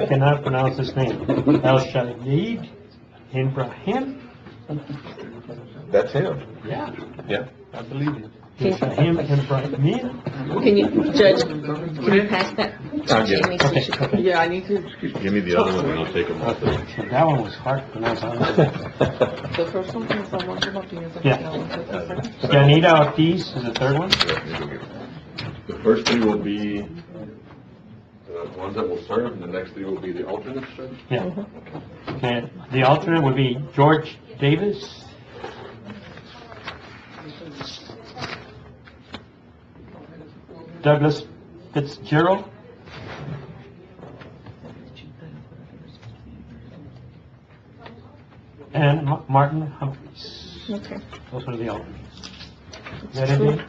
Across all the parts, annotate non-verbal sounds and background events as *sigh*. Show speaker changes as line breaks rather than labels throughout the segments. I cannot pronounce his name. El Shaddid Ibrahim?
That's him.
Yeah,
Yeah.
I believe it. El Shaddid Ibrahim?
Can you, Judge, can you pass that?
I'll get it.
Jamie, so she-
Okay.
Yeah, I need to,
Give me the other one, and I'll take them off.
Okay, That one was hard to pronounce.
the first one is the one from up here, the
Yeah.
second one is the second.
Danita Ortiz is the third one.
The first three will be uh, the ones that will serve, and the next three will be the alternates, sir?
Yeah. Okay, the alternate would be George Davis. Douglas Fitzgerald. And Ma- Martin Humphries.
Okay.
Those are the alternates. Is that it?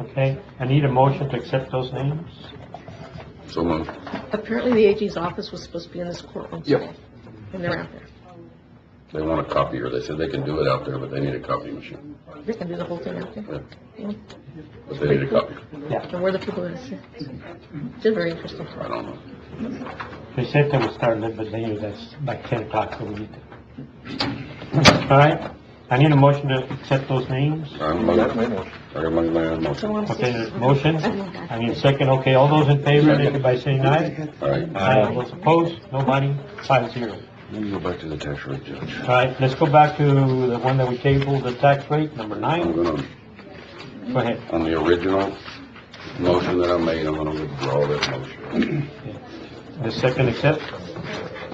Okay, I need a motion to accept those names.
So moved.
Apparently, the AG's office was supposed to be in this courtroom today. And they're out there.
They want a copier. They said they can do it out there, but they need a copy machine.
They can do the whole thing out there.
But they need a copier.
And we're the people that sit. They're very interesting.
I don't know.
They said they would start a little bit later, that's like ten o'clock, so we need to. All right, I need a motion to accept those names.
I'm, I got Oh, my own motion. All
Okay, there's a motion, I need a second, okay, all those in favor, indicate by saying aye.
right.
Aye. Those opposed, nobody, five zero.
Let me go back to the tax rate, Judge.
All right, let's go back to the one that we tabled, the tax rate, number
I'm
nine,
gonna,
go ahead.
on the original motion that I made, I'm gonna withdraw that motion.
The second accept,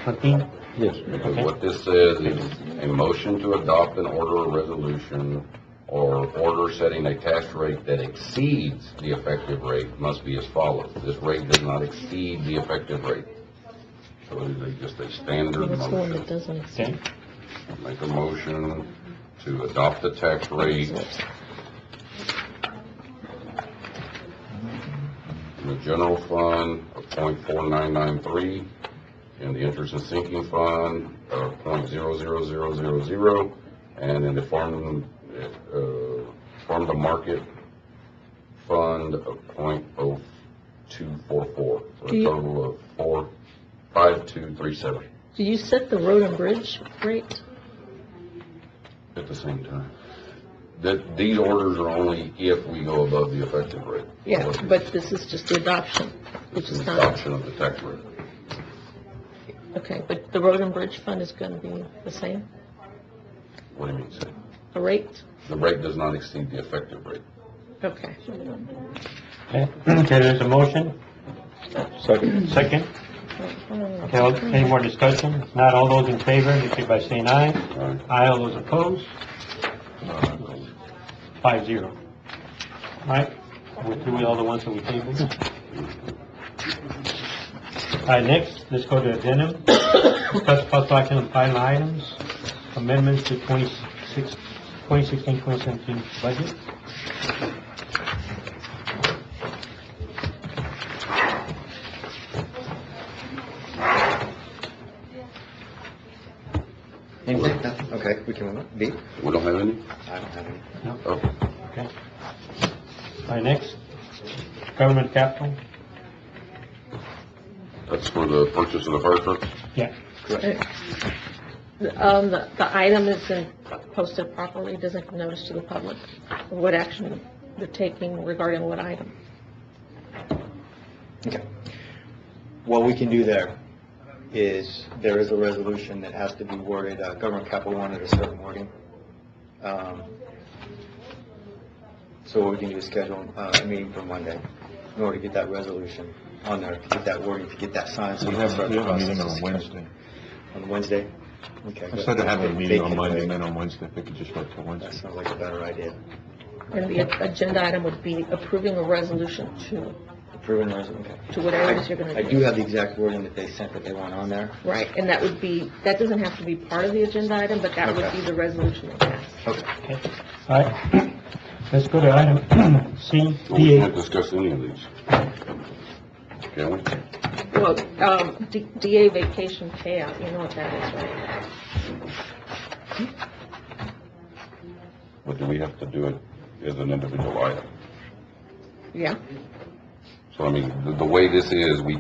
Martin,
Yes. Because what this says is a motion to adopt an order or resolution or order setting a tax rate that exceeds the effective rate must be as follows. This rate does not exceed the effective rate. So it is a- just a standard
What's the one that
motion.
doesn't exist?
okay,
Make a motion to adopt the tax rate in the general fund of .4993, in the interest and sinking fund of .00000, and in the farm, uh, farm to market fund of .0244, for
Do
a
you-
total of four, five, two, three, seven,
Do you set the road and bridge rate?
at the same time. That, these orders are only if we go above the effective rate.
Yeah,
Or
but this is just the adoption, which is
the
not,
Adoption of the tax rate.
okay, but the road and bridge fund is gonna be the same,
What do you mean, sir?
the rate?
The rate does not exceed the effective rate.
Okay.
okay, Okay, there's a motion,
Second.
second,
Um,
okay, all- any more discussion? If Not all those in favor, indicate by saying aye. Aye, all those opposed? Five zero. All right, we're through with all the ones that we tabled. All right, next, let's go to addendum. Discuss possible action on final items, amendments to 26 2016, 2017 budget.
Anything? No? Okay, we can move on. B?
We don't have any?
I don't have any.
Oh,
Okay. All right, next, government capital.
that's for the purchase of the fire truck?
Yeah,
Um, the, the item isn't posted properly, doesn't give notice to the public, what action they're taking regarding what item.
Okay. What we can do there is, there is a resolution that has to be worded, uh, government capital wanted a certain wording. Um, So what we can do is schedule uh, a meeting for Monday in order to get that resolution on there, to get that wording, to get that signed. so
We
can
have,
start
we
the
have a meeting
process.
on Wednesday.
On Wednesday? Okay.
Instead of having a
They
meeting on
can-
Monday and then on Wednesday, if they could just wait till
That
Wednesday.
sounds like a better idea.
And the agenda item would be approving a resolution to,
Approving resolution, okay.
to whatever it is you're gonna do.
I do have the exact wording that they sent that they want on there.
Right, and that would be, that doesn't have to be part of the agenda item, but that would
Okay.
be the resolution that passed.
Okay.
all right, let's go to item *clears throat* C,
Well, We
DA.
can't discuss any of these. Can we?
Well, um, D- DA vacation payout, you know what that is, right?
But do we have to do it as an individual item?
Yeah,
So So I mean, the, the way this is, we